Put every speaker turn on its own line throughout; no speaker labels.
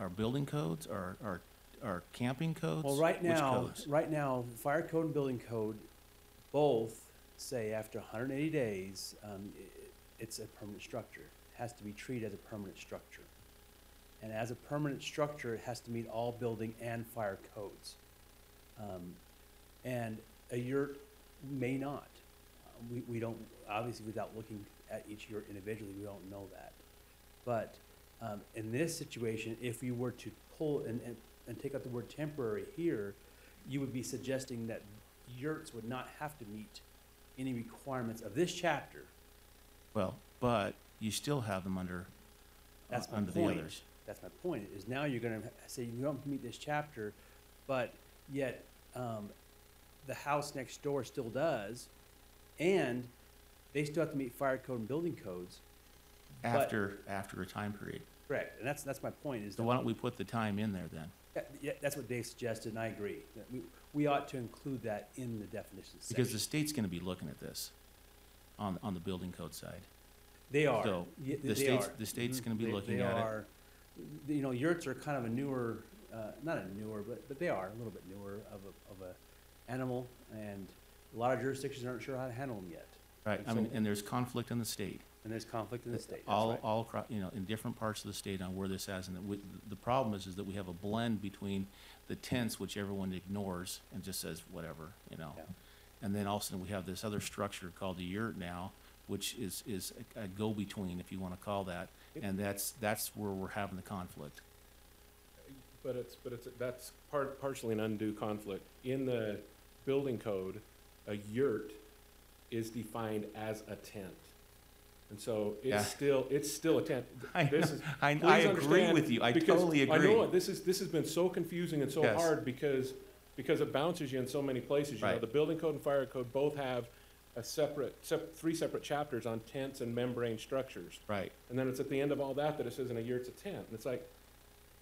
our building codes, our, our, our camping codes?
Well, right
Which
now,
codes?
right now, fire code and building code both say after hundred and eighty days, um, i- i- it's a permanent structure. It Has to be treated as a permanent structure. And as a permanent structure, it has to meet all building and fire codes. Um, and a yurt may not. Uh, We, we don't, obviously without looking at each yurt individually, we don't know that. But, um, in this situation, if you were to pull and, and, and take out the word temporary here, you would be suggesting that yurts would not have to meet any requirements of this chapter.
Well, but you still have them under, uh,
That's my
under the
point.
others.
That's my point, is now you're gonna ha- say you don't meet this chapter, but yet, um, the house next door still does, and they still have to meet fire code and building codes. But-
After, after a time period.
Correct, and that's, that's my point, is
So
that
why don't we put the time in there then?
Yeah, yeah, that's what Dave suggested, and I agree. that We, we ought to include that in the definition
Because the
section.
state's gonna be looking at this on, on the building code side.
They are.
so
Ye-
the
they
state's-
are.
the state's
Mhm.
gonna be
They-
looking
they
at it.
are. You know, yurts are kind of a newer, uh, not a newer, but, but they are a little bit newer of a, of a animal, and a lot of jurisdictions aren't sure how to handle them yet.
Right,
And
I mean,
so-
and there's conflict in the state.
And there's conflict in the state, that's
All,
right.
all, acro- you know, in different parts of the state on where this has, and that we- the problem is, is that we have a blend between the tents, which everyone ignores and just says whatever, you know?
Yeah.
And then also we have this other structure called the yurt now, which is, is a a go-between, if you wanna call that.
Yep.
And that's, that's where we're having the conflict.
But it's, but it's, that's part, partially an undue conflict. In the building code, a yurt is defined as a tent. And so
Yeah.
it's still, it's still a tent.
I
This
know.
is-
I- I
please
agree
understand,
with you. I
because
totally
I know
agree.
it. This is, this has been so confusing and so
Yes.
hard because, because it bounces you in so many places. You know,
Right.
the building code and fire code both have a separate, sep- three separate chapters on tents and membrane structures.
Right,
And then it's at the end of all that that it says in a year it's a tent. And it's like,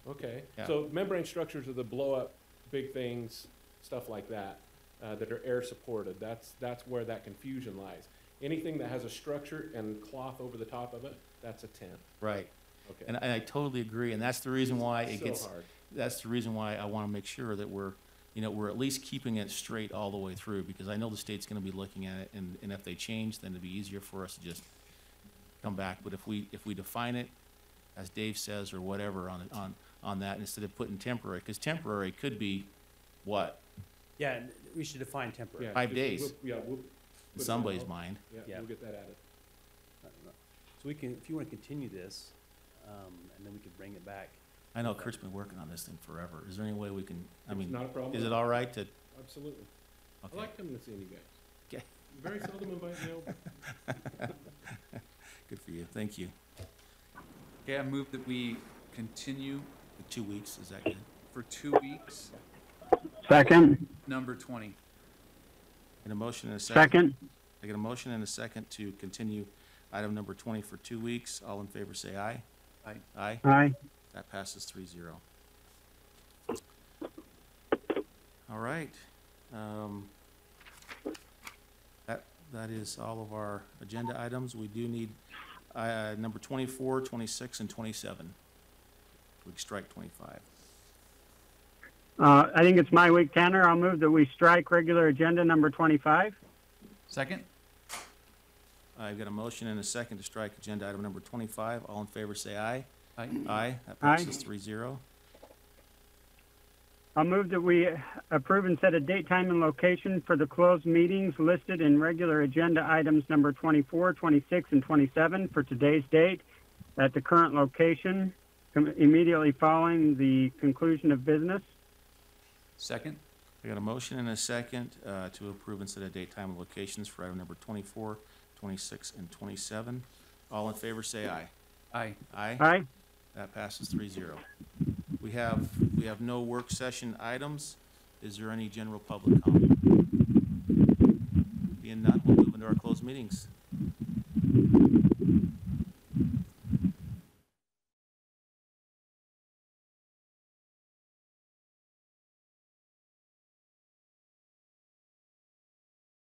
okay.
Yeah.
So membrane structures are the blow up, big things, stuff like that, uh, that are air supported. That's, that's where that confusion lies. Anything that has a structure and cloth over the top of it, that's a tent.
right.
Okay.
And I, and I totally agree, and that's the reason why it
So
gets,
hard.
that's the reason why I want to make sure that we're, you know, we're at least keeping it straight all the way through, because I know the state's going to be looking at it, and, and if they change, then it'd be easier for us to just come back. But if we, if we define it, as Dave says, or whatever, on, on, on that, instead of putting temporary, because temporary could be what?
Yeah, and we should define temporary.
Yeah,
Five
just-
days.
we'll- Yeah, we'll.
In somebody's mind,
Yeah,
Yeah.
we'll get that added.
So we can, if you want to continue this, um, and then we could bring it back.
I know Kurt's been working on this thing forever. Is there any way we can, I
It's
mean,
not a problem.
is it all right to,
Absolutely. I
okay,
like coming to see you guys.
Okay.
You Very seldom invite me over.
good for you, thank you.
Okay, I move that we continue
Two weeks, is that good?
for two weeks,
Second,
number twenty.
And a motion and a second?
second,
I get a motion and a second to continue item number twenty for two weeks. All in favor, say aye.
Aye.
Aye.
aye.
That passes three zero. All right. Um, That, that is all of our agenda items. We do need, uh, number 24, 26, and twenty-seven. We can strike twenty-five.
Uh, I think it's my week, Tanner. I'll move that we strike regular agenda number 25.
Second?
I've got a motion and a second to strike agenda item number twenty-five. All in favor, say aye.
Aye.
Aye. That
Aye.
passes three zero.
I'll move that we approve and set a date, time, and location for the closed meetings listed in regular agenda items number 24, 26, and 27 for today's date at the current location com- immediately following the conclusion of business.
Second?
I got a motion and a second uh, to approve and set a date, time, and locations for item number 24, 26, and 27. All in favor, say aye.
Aye.
Aye?
Aye.
That passes 3-0. We have, we have no work session items. Is there any general public comment? Being none, we'll move into our closed meetings.